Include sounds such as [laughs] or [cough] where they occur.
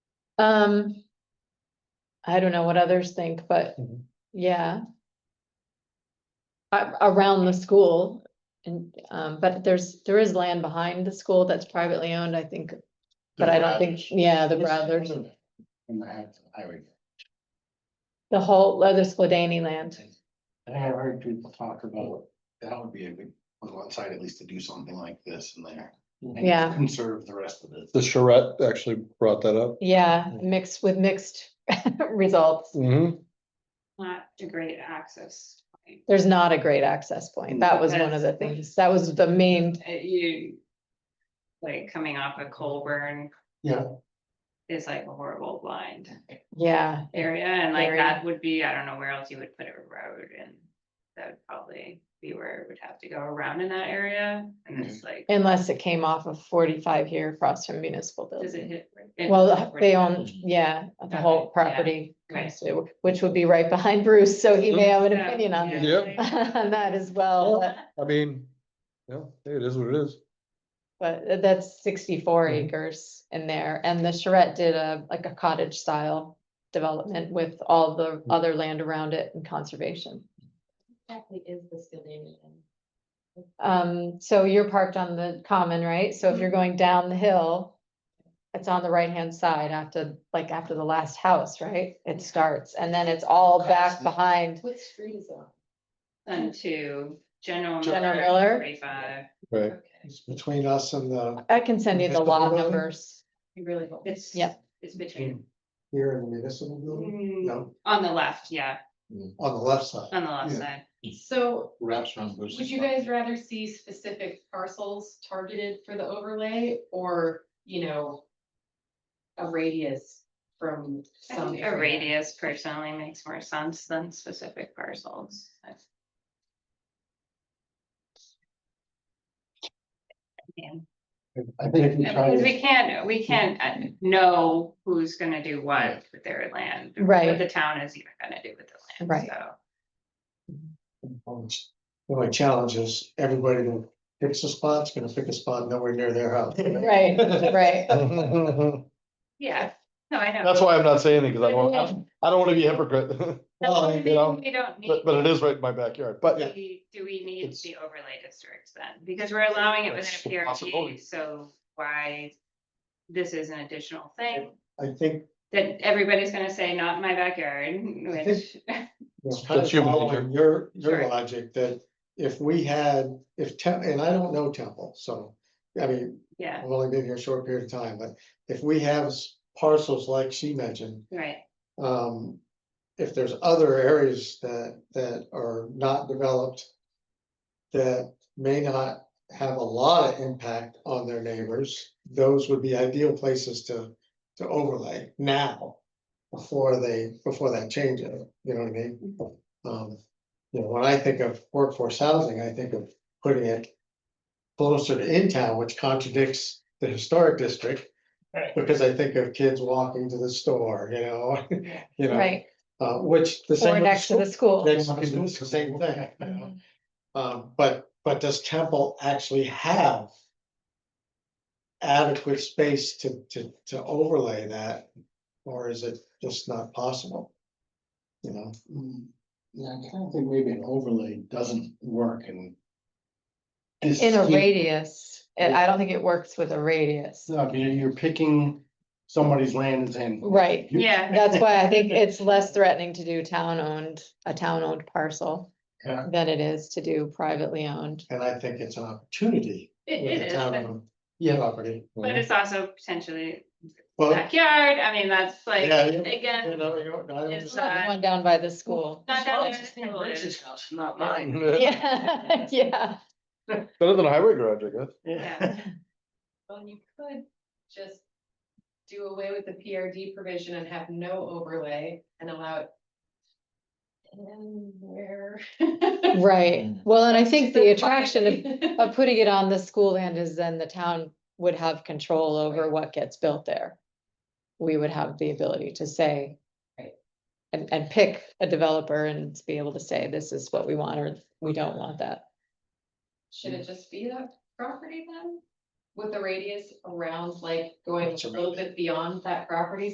Um. I don't know what others think, but Mhm. yeah. A- around the school and, um, but there's, there is land behind the school that's privately owned, I think. But I don't think, yeah, the Brothers, In the act, I would. the whole, the Spladany land. I have heard people talk about, that would be a good, on one side at least to do something like this in there. and Yeah. Conserve the rest of it. The charrette actually brought that up. Yeah, mixed with mixed [laughs] results. Mhm. Not a great access. point. There's not a great access point. That was one of the things. That was the main, Uh, You, like, coming off of Colburn Yeah. is like a horrible blind yeah, area, and like Area. that would be, I don't know where else you would put a road and that would probably be where it would have to go around in that area, Mm-hmm. and it's like, unless it came off of forty-five here across from municipal building. does it hit? it Well, hits they 45? own, yeah, the Okay, whole yeah, property, okay. so- which would be right behind Bruce, so he may have an So, opinion on yeah, that- Yep. on [laughs] that as well. Yeah. but- I mean, yeah, hey, it is what it [laughs] is. But that's sixty-four Mm-hmm. Mhm. acres in there, and the charrette did a, like a cottage style development with all the Mm-hmm. other land around it and conservation. Exactly is the Sylvania. Um, so you're parked on the common, right? So if Mm-hmm. you're going down the hill, it's on the right-hand side after, like, after the last house, right? It starts, and then it's all back Across. behind What street is on? Onto General. General Miller. Forty-five, Right. It's between us and the, I can send you the Municipal law building? numbers. You really don't. it's. Yep. It's between, here in the municipal building, Mm, Mm-hmm. no, on the left, yeah, on the left side. on the left Yeah. side, So Wraps around Bruce's. would you guys rather see specific parcels targeted for the overlay or, you know, a radius from I some think a area? radius personally makes more sense than specific parcels. I mean, I think if you try Because we to, can't, we can't uh, know who's gonna do what with their land. or Right. What the town is even gonna do with the Right. land, so. um, the only challenge is everybody that picks a spot's gonna pick a spot nowhere near their house. [laughs] Right, [laughs] right. That's Yeah, no, I know. why I'm not saying it, because I Oh, don't, I don't want to be a hypocrite, [laughs] Well, you know, We don't need. but, but it is right in my backyard, Do but we- do we need It's- the overlay districts then? Because we're allowing it within That's a a possibility. PRD, so why? This is an additional thing I think. that everybody's gonna say, not in my backyard, which, It's kind of That's human following your, your Sure. logic that if we had, if Temple, and I don't know Temple, so. I mean, yeah, I've only been here a short period of time, but if we have s- parcels like she mentioned, right, um. If there's other areas that, that are not developed. That may not have a lot of impact on their neighbors, those would be ideal places to, to overlay now. Before they, before that change, it, you know what I mean? Um, you know, when I think of workforce housing, I think of putting it closer to in town, which contradicts the historic district. Right. Because I think of kids walking to the store, you know, [laughs] you know, Right, uh, which the same. or with next to the school. Mm-hmm. Next to the school, it's the same thing, you know? Um, but, but does Temple actually have adequate space to, to, to overlay that? Or is it just not possible? You know? Mm, Yeah, I kind of think maybe an overlay doesn't work and. In a radius, and I don't think it works with a radius. No, I mean, you're picking somebody's land and saying. Right, you- yeah, that's why I think it's less threatening to do town-owned, a town-owned parcel Yeah. than it is to do privately owned. And I think it's an opportunity it with it the is, town but- owned property. [laughs] but it's also potentially Well, backyard, I mean, that's like, Oh. Yeah, yeah. you again, know, you know, I It's was- Not the Uh, One down by the school. not Well, that. it's just in Bruce's there's- house, Not mine. [laughs] Yeah, yeah, better than a highway garage, I guess. Yeah. Well, you could just do away with the PRD provision and have no overlay and allow it. anywhere. right. Well, and I [laughs] think the attraction of of. of putting it on the school land is then the town would have control over what gets built there. We would have the ability to say. Right. And, and pick a developer and be able to say, this is what we want, or we don't want that. Should it just be that property then? With the radius around, like going a little bit beyond that property